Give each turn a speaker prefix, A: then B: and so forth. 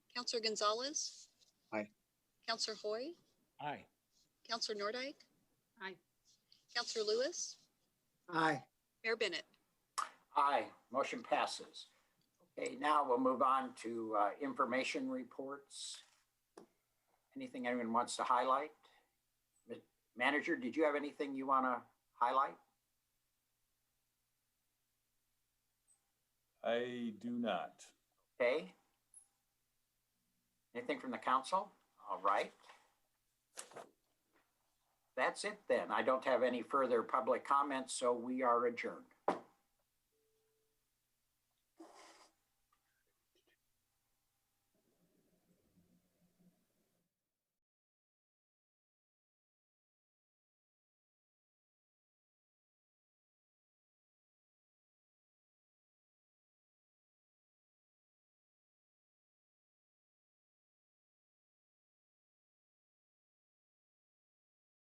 A: Counselor Gonzalez?
B: Aye.
A: Counselor Hoy?
C: Aye.
A: Counselor Nordike?
D: Aye.
A: Counselor Lewis?
E: Aye.
A: Mayor Bennett?
F: Aye, motion passes. Okay, now we'll move on to uh, information reports. Anything anyone wants to highlight? Ma- Manager, did you have anything you want to highlight?
G: I do not.
F: Okay. Anything from the council? All right. That's it then. I don't have any further public comments, so we are adjourned.